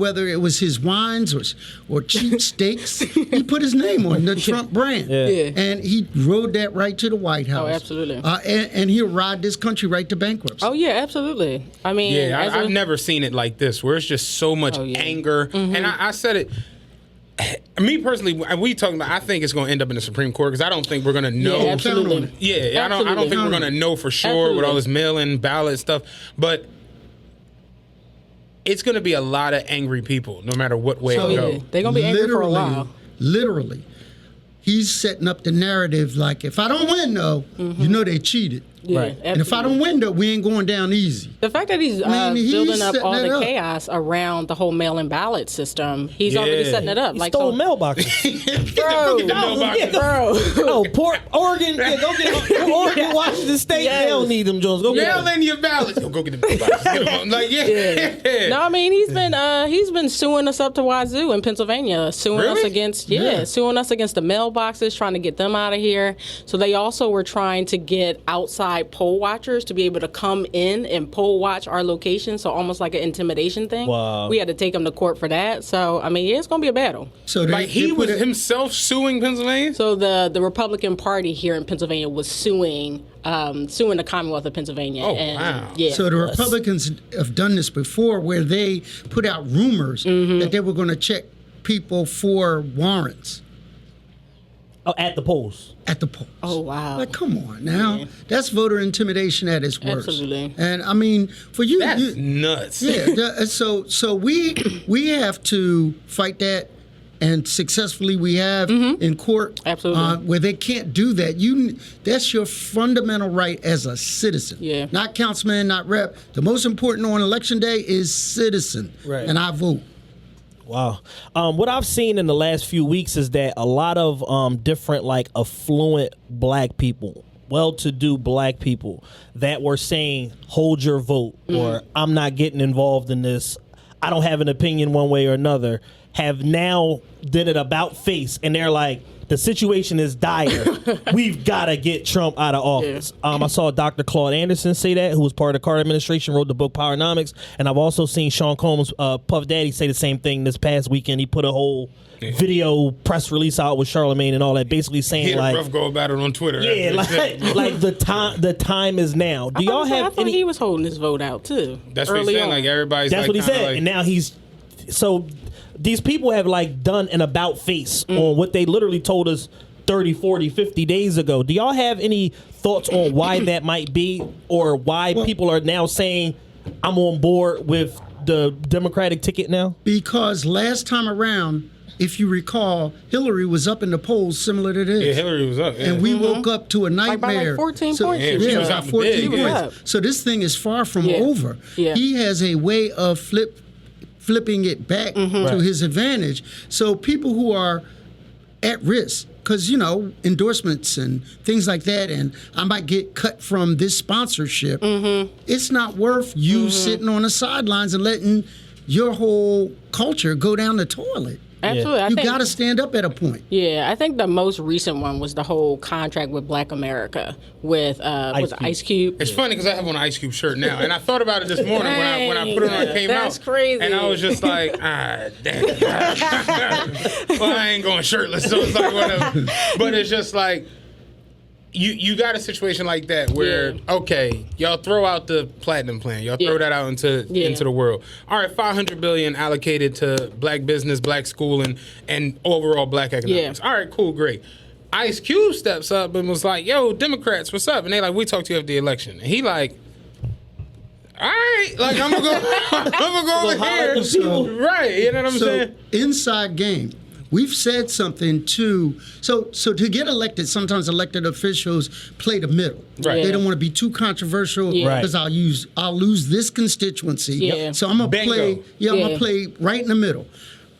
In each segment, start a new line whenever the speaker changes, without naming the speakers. whether it was his wines or, or cheap steaks, he put his name on the Trump brand.
Yeah. Oh,
And he rode that right to the White House.
absolutely.
Uh, and, and he'll ride this country right to bankruptcy.
Oh yeah, absolutely. I mean,
Yeah,
as
I,
a-
I've never seen it like this, where it's just so much
Oh, yeah.
anger. And I, I said it. Me personally, we talking about. I think it's going to end up in the Supreme Court because I don't think we're going to know.
yeah,
Yeah,
on it.
absolutely.
I don't. I don't think we're
Absolutely.
going to know for sure with
Absolutely.
all this mail-in ballot stuff, but. It's going to be a lot of angry people, no matter what way
So,
it
yeah,
goes.
they're gonna be angry for a
Literally-
while.
Literally, he's setting up the narrative like, if I don't win, though, you know they cheated.
Mm-hmm. Yeah,
Right.
And if I don't win, though, we ain't going down easy.
The fact that he's uh,
Man, he's
building up
setting
all
it
the
up.
chaos around the whole mail-in ballot system, he's already
Yeah.
setting it up.
He
like
stole
so-
mailboxes.
bro,
the mailbox.
Yeah, go-
bro.
no, poor Oregon. Yeah, go get go Oregon, Washington State.
Yes.
They don't need them Jones. Go get
Mail
them.
in your ballots. Oh, go get the ballots. Come on. like yeah.
No, I mean he's been uh, he's been suing us up to Wazoo in Pennsylvania, suing us
Really?
against yeah, suing us against the mailboxes, trying to get them out of here. So they also were trying to get outside poll watchers to be able to come in and poll watch our location. So almost like an intimidation thing.
Wow.
We had to take them to court for that. So I mean, yeah, it's gonna be a battle.
So they,
Like he
they
was
put it-
himself suing Pennsylvania.
So the the Republican Party here in Pennsylvania was suing um, suing the Commonwealth of Pennsylvania.
Oh,
and,
wow.
Yeah.
So the Republicans have done this before, where they put out rumors
Mm-hmm.
that they were going to check people for warrants
Oh, at the polls.
at the polls.
oh wow.
Like, come on now, that's voter intimidation at its worst.
Absolutely.
And I mean, for you,
That's
you-
nuts.
yeah. the- uh, so, so we we have to fight that, and successfully we have in court.
Mm-hmm. Absolutely.
uh, where they can't do that. You, that's your fundamental right as a citizen.
Yeah.
Not councilman, not rep. The most important on election day is citizen.
Right.
And I vote.
Wow. Um, what I've seen in the last few weeks is that a lot of um, different, like, affluent black people, well to do black people, that were saying, hold your vote, or I'm not getting involved in this. I don't have an opinion one way or another, have now did it about face. And they're like, the situation is dire. We've got to get Trump out of office. Um, I saw Dr. Claude Anderson say that, who was part of the Carter administration, wrote the book Powernomics, and I've also seen Sean Combs, uh, Puff Daddy, say the same thing this past weekend. He put a whole video press release out with Charlemagne and all that, basically saying
He had
like,
a rough go about it on Twitter.
yeah,
after he said
like, like the time, the time is now.
I
Do y'all
was saying,
have
I thought
any?
he was holding his vote out too.
That's what
early
he said.
on.
Like everybody's.
That's
like,
what he
kinda
said.
like-
and now he's so these people have like done an about face
Mm.
on what they literally told us 30, 40, 50 days ago. Do y'all have any thoughts on why that might be or why people are now saying I'm on board with the Democratic ticket now?
Because last time around, if you recall, Hillary was up in the polls similar to this.
yeah, Hillary was up. Yeah.
and we woke up to a nightmare.
by, Mm-hmm. like, 14 points
she was
about
up big.
14
She was
points.
up.
So this thing is far from
Yeah.
over.
Yeah.
He has a way of flip, flipping it back
Mm-hmm.
to his advantage. So people who are at risk, because you know endorsements and things like that, and I might get cut from this sponsorship.
Mm-hmm.
It's not worth you sitting on the sidelines and letting your whole culture go down the toilet.
Absolutely. I
you
think,
got to stand up at a point.
Yeah, I think the most recent one was the whole contract with Black America with uh,
Ice
was it
Cube.
Ice Cube.
It's funny because I have on an Ice Cube shirt now, and I thought about it this morning when I when I put it on and
Dang,
came
that's
out.
crazy.
And I was just like, ah, damn. well, I ain't going shirtless, so it's like whatever. But it's just like. You, you got a situation like that where
Yeah.
okay y'all throw out the platinum plan y'all throw
Yeah.
that out into
Yeah.
into the world all right 500 billion allocated to black business black schooling and overall black economics
Yeah.
all right cool great Ice Cube steps up and was like yo Democrats what's up and they like we talked to you after the election and he like all right, like I'm gonna go, I'm gonna go over
holler
here,
at the people.
right? You know what I'm
so
saying?
inside game we've said something to so so to get elected sometimes elected officials play the middle
Right.
they don't want to be too controversial
Yeah.
Right.
because i'll use i'll lose this constituency
Yeah.
so i'm gonna
Bingo.
play yeah, i'm gonna
Yeah.
play right in the middle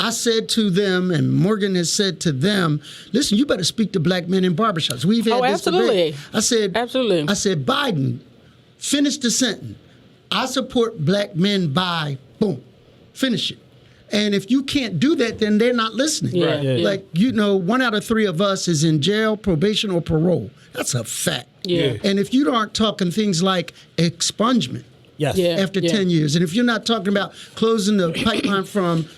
I said to them, and Morgan has said to them, "Listen, you better speak to black men in barbershops. We've had
Oh,
this debate."
absolutely.
I said,
Absolutely.
I said, Biden, finish the sentence. I support black men by boom. Finish it. And if you can't do that, then they're not listening.
Yeah, Right. yeah.
Like, you know, one out of three of us is in jail, probation, or parole. That's a fact.
Yeah.
And if you aren't talking things like expungement,
Yes.
Yeah.
after 10 years. And if you're not talking about closing the pipeline from